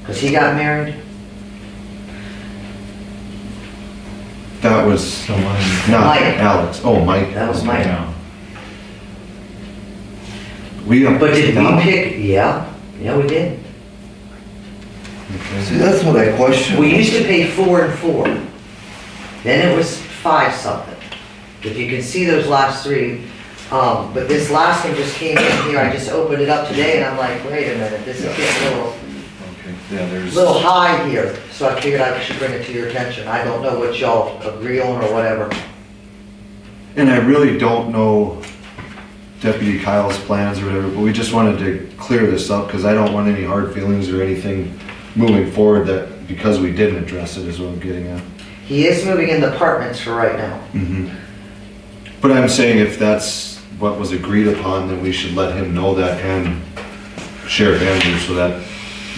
Because he got married? That was Someone, not Mike. Alex. Oh, Mike. That was Mike. yeah. We. But did we pick, yeah, yeah, we did. Okay. See, that's what I question. We used to pay four and four. Then it was five something. If you can see those last three, um, but this last one just came in here, I just opened it up today and I'm like, wait a minute, this is getting a little, Okay, yeah, there's. little high here. So I figured I should bring it to your attention. I don't know what y'all agree on or whatever. And I really don't know Deputy Kyle's plans or whatever, but we just wanted to clear this up because I don't want any hard feelings or anything moving forward that, because we didn't address it is what I'm getting at. He is moving in the apartments for right now. Mm-hmm. But I'm saying if that's what was agreed upon, then we should let him know that and Sheriff Andrews so that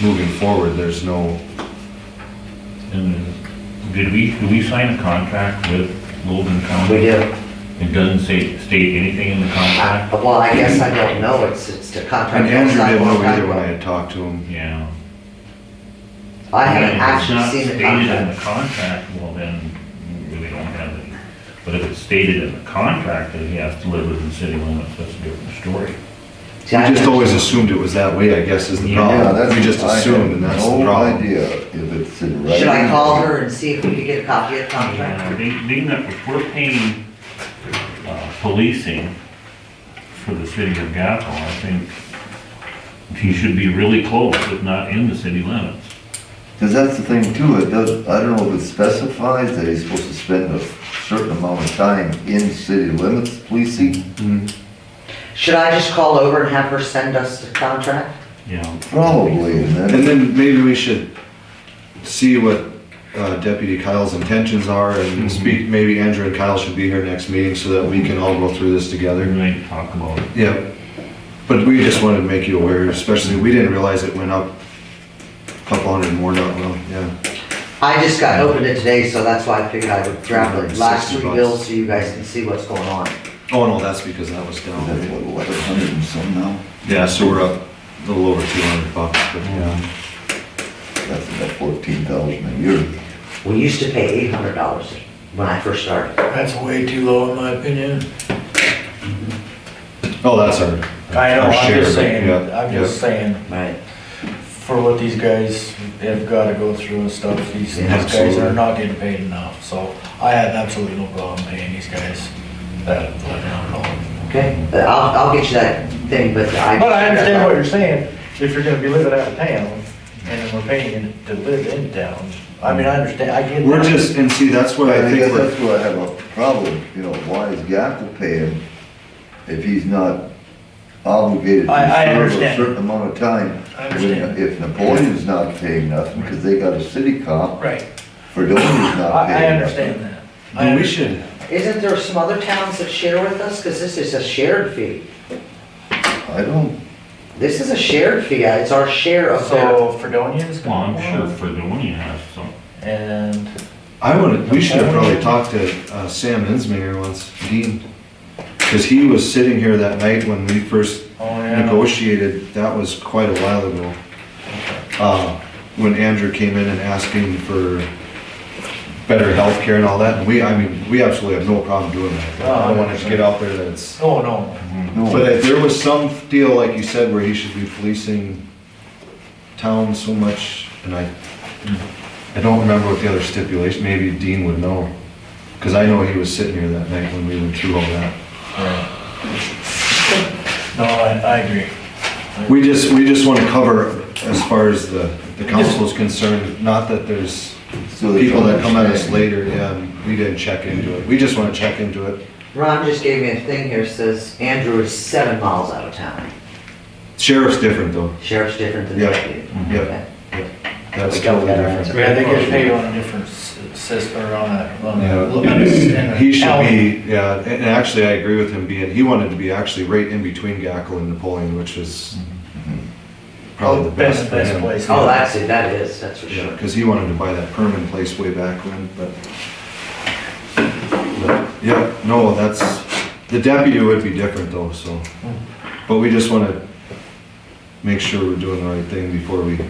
moving forward, there's no, And Did we, did we sign a contract with Golden County? We do. It doesn't say, state anything in the I- contract? Well, I guess I don't know, it's, it's the contract. and Andrew didn't know either when I I had talked to him. Yeah. haven't And if it's actually not seen the Stated in contract. the contract, well then, we really don't have any. But if it's stated in the contract that he has to live within city limits, that's a different story. See, We I just haven't- always assumed it was that way, I guess, is the Yeah, problem. that's. We just I have assumed and that's the No problem. idea if it's in writing. Should I call her and see if we could get a copy of the contract? And Being being that if we're paying, uh, policing for the city of Gackel, I think he should be really close, if not in the city limits. Cause that's the thing too, it does, I don't know if it specifies that he's supposed to spend a certain amount of time in city limits policing. Should I just call over and have her send us the contract? Yeah. Probably, and And then, then maybe we should see what uh, Deputy Kyle's intentions are Mm-hmm. and speak, maybe Andrew and Kyle should be here next meeting so that we can all go through this They're together. going to talk about it. Yeah, but we just wanted to make you aware, especially, we didn't realize it went up a couple hundred more, not well, yeah. I just got opened it today, so that's why I figured I would grab the last three 360 bucks. bills so you guys can see what's going on. Oh, no, that's because that was that's down. what, what, a hundred and some now? Yeah, so we're up a little over two hundred bucks, but yeah. That's about fourteen thousand a year. We used to pay eight hundred dollars when I first started. That's way too low in my opinion. Oh, that's our. I know, our I'm share, just saying, yeah, I'm just saying, Right. for what these guys have gotta go through and stuff, these, these Yeah, guys absolutely. are not getting paid enough, so I had absolutely no problem paying these guys that, like, not at all. Okay, but I'll, I'll get you that thing, but I. But I understand what you're saying, if you're gonna be living out of town, and we're paying to live in town, I mean, I understand, I get yeah. that. We're just, and see, that's what I I think guess we're. that's where I have a problem, you know, why is Gackel paying if he's not obligated to I- I serve a understand. certain amount of time? I understand. If Napoleon's not paying nothing, cause they got a city cop, Right, Fredonia's I, not I paying nothing. understand that. I And we understand. should, Isn't there some other towns that share with us? Because this is a shared fee. I don't, This is a shared fee, uh, it's our share of their. So Fredonia's Well, gonna. I'm sure Fredonia has some. And I would, we should have probably talked to uh, Sam Insminger once, Dean. Cause he was sitting here that night when we first Oh, yeah. negotiated, that was quite a while ago. Uh, when Andrew came in and asking for better healthcare and all that, and we, I mean, we absolutely have no problem doing that. I don't want it to get out there that it's, Oh, no. but no, if there was some deal, like you said, where he should be policing town so much, and I, I don't remember what the other stipulation, maybe Dean would know. Cause I know he was sitting here that night when we went through all that. No, I, I agree. We just, we just want to cover as far as the, the council's concerned, not that there's So they people that don't come at us understand. later, yeah, and we didn't check into it. We just want to check into it. Ron just gave me a thing here, says Andrew is seven miles out of town. Sheriff's different though. Sheriff's different than Yeah, deputy. yeah. Okay. That's We got totally that right. different. Yeah, they get paid on a different s- system, or on a, on a. on Yeah. a- He should be, yeah, and and actually I agree with him being, he wanted to be actually right in between Gackel and Napoleon, which is Mm-hmm. probably the best Best, for best him. place. Oh, that's it, that is, that's for sure. Because he wanted to buy that permanent place way back when, but. but, Yeah, no, that's, the deputy would be different Mm-hmm. though, so. But we just want to make sure we're doing the right thing before we